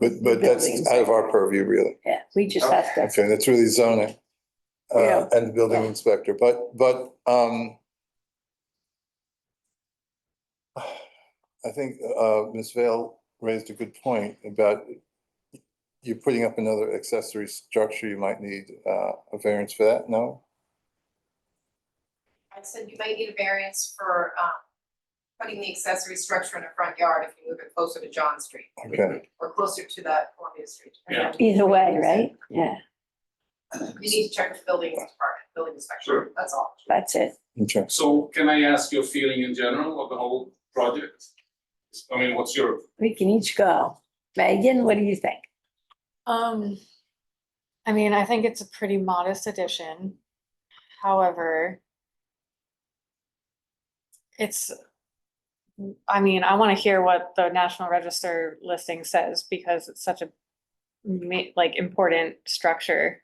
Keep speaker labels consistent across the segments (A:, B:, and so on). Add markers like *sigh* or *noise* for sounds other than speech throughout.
A: But, but that's
B: Buildings.
A: out of our purview, really.
B: Yeah, we just have to,
A: Okay, that's really zoning.
B: Yeah.
A: Uh, and the building
B: Yeah.
A: inspector, but, but, um, I think, uh, Ms. Vale raised a good point about you're putting up another accessory structure, you might need, uh, a variance for that, no?
C: I said you might need a variance for um putting the accessory structure in a front yard if you move it closer to John Street
D: Mm-hmm.
A: Okay,
C: or closer to that Columbia Street.
E: Yeah.
B: either way, right? Yeah,
C: You need to check with the building department, building inspection,
E: Sure.
C: that's all.
B: that's it.
A: okay.
E: So can I ask your feeling in general of the whole project? I mean, what's your,
B: We can each go. Megan, what do you think?
F: Um, I mean, I think it's a pretty modest addition. However, it's, I mean, I want to hear what the National Register listing says because it's such a ma- like important structure.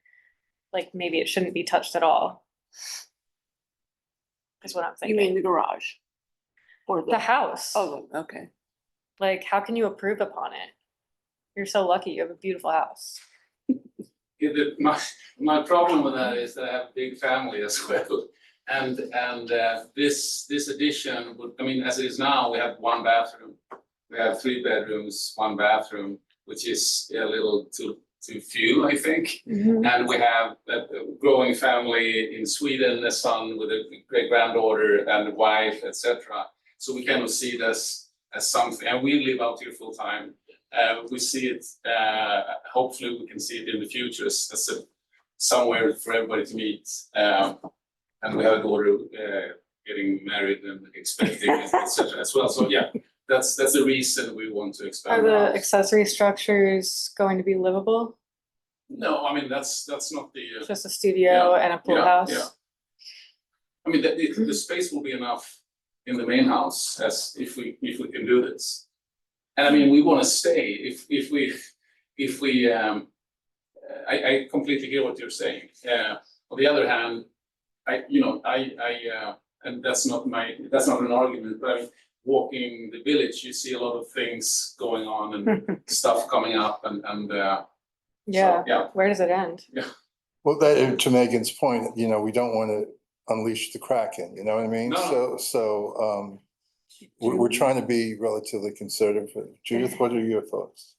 F: Like maybe it shouldn't be touched at all. Is what I'm
G: You mean
F: thinking.
G: the garage? Or
F: The
G: the,
F: house,
G: oh, okay.
F: like how can you improve upon it? You're so lucky. You have a beautiful house.
E: Yeah, the- my, my problem with that is that I have a big family as well. And, and uh, this, this addition would, I mean, as it is now, we have one bathroom. We have three bedrooms, one bathroom, which is a little too, too few, I think. And we have a a growing family in Sweden, a son with a great granddaughter and a wife, etc. So we kind of see it as, as something, and we live out here full time. Uh, we see it, uh, hopefully we can see it in the future as, as a, somewhere for everybody to meet. Um, and we have a daughter, uh, getting married and expecting, etc. as well. So yeah, that's, that's the reason we want to
F: Are
E: expand. the
F: the
E: house.
F: accessory structures going to be livable?
E: No, I mean, that's, that's not the. uh,
F: Just a studio and a pool
E: yeah,
F: house?
E: yeah. I mean, the, the, the space will be enough in the main house as if we, if we can do this. And I mean, we wanna stay, if, if we, if we, um, I, I completely hear what you're saying. Uh, on the other hand, I, you know, I, I, uh, and that's not my, that's not an argument, but I mean, walking the village, you see a lot of things going on and stuff coming up and, and, uh, so,
F: Yeah,
E: yeah,
F: where does it end?
A: Well, that, to Megan's point, you know, we don't want to unleash the Kraken, you know what I mean?
E: No.
A: So, so, um, we're, we're trying to be relatively conservative. Judith, what are your thoughts?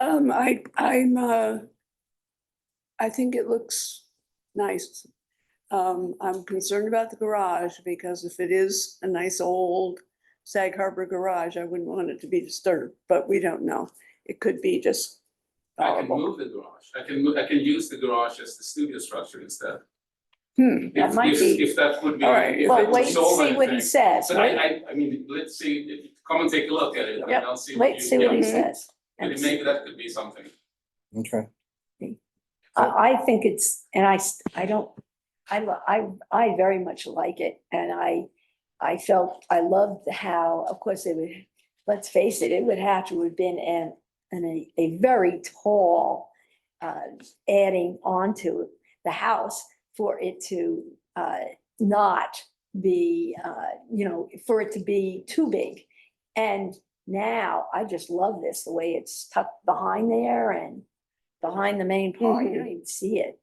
G: Um, I, I'm, uh, I think it looks nice. Um, I'm concerned about the garage because if it is a nice old Sag Harbor garage, I wouldn't want it to be disturbed, but we don't know. It could be just
E: I can
G: horrible.
E: move the garage, I can, mo- I can use the garage as the studio structure instead.
B: Hmm,
E: If-
B: that might
E: if-
B: be.
E: If that would be.
G: All right,
E: if it
B: Well,
E: would
B: wait and
E: solve
B: see what he
E: anything.
B: says.
E: But I, I, I mean, let's see, if- come and take a look at it, and
G: Yep,
E: I'll see what you.
B: Wait, see what he
E: yeah.
B: says.
E: Maybe
B: That's-
E: maybe that could be something.
A: Okay,
B: I, I think it's, and I, s- I don't, I, lo- I, I very much like it, and I, I felt, I loved how, of course, it would, let's face it, it would have to have been an, an, a- a very tall, uh, adding onto the house for it to, uh, not be, uh, you know, for it to be too big. And now, I just love this, the way it's tucked behind there and behind the main part, you
E: Mm-hmm.
G: Mhm.
B: don't even see it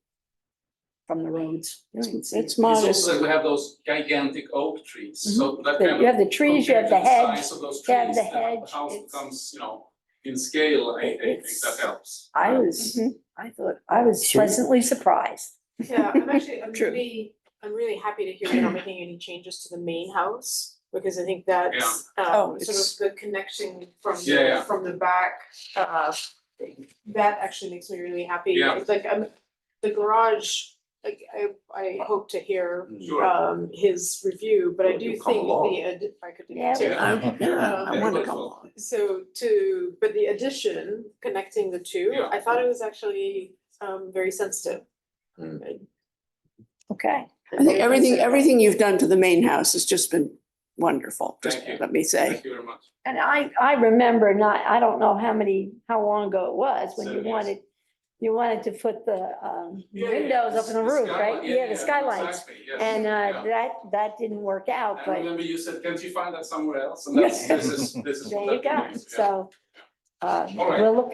B: from the roads. You don't even see it.
G: It's
E: It's
G: modest.
E: also that we have those gigantic oak trees, so
B: Mm-hmm.
E: that
B: The-
E: kind of.
B: You have the trees, you
E: compared
B: have the
E: to
B: hedge.
E: Size of those trees.
B: you have the
E: the hou-
B: hedge,
E: The house
B: it's-
E: becomes, you know, in scale, I, I think that
B: It's-
E: helps. Uh,
B: I was,
E: mm-hmm.
B: I thought, I was
A: Sure.
B: pleasantly surprised.
D: Yeah,
C: *laughs*
D: I'm actually, I'm
G: True.
D: really, I'm really happy to hear you're not making any changes to the main house, because I think that's
G: Oh,
D: um sort
G: it's-
D: of the connection from
E: Yeah, yeah.
D: the, from the back, uh that actually makes me really happy.
E: Yeah.
D: It's Like, I'm, the garage, like, I I hope to hear
E: Sure,
D: um his review, but I
H: Well,
D: do
H: you
D: think
H: come along.
D: the, ad- if I could.
B: Yeah,
D: too.
E: yeah,
G: I, yeah, I
E: Yeah,
G: wanna
E: it's
G: go
E: all-
G: along.
D: So to, but the addition, connecting the two,
E: Yeah.
D: I thought it was actually um very sensitive.
B: Okay.
G: I think everything, everything you've done to the main house has just been wonderful, just
E: Thank you.
G: let me say.
E: thank you very much.
B: And I, I remember not, I don't know how many, how long ago it was, when you
E: Seven years.
B: wanted, you wanted to put the, um,
E: Yeah, yeah,
B: windows up in the roof,
E: skylight,
B: right? Yeah, the skylights.
E: exactly, yes,
B: And,
E: yeah.
B: uh, that, that didn't work out,
E: I
B: but
E: remember you said, can't you find that somewhere else? And that's, this is, this is. *laughs*
B: there
E: what
B: you
E: that
B: go,
E: means, yeah.
B: so. Uh,
E: All right.
B: we'll look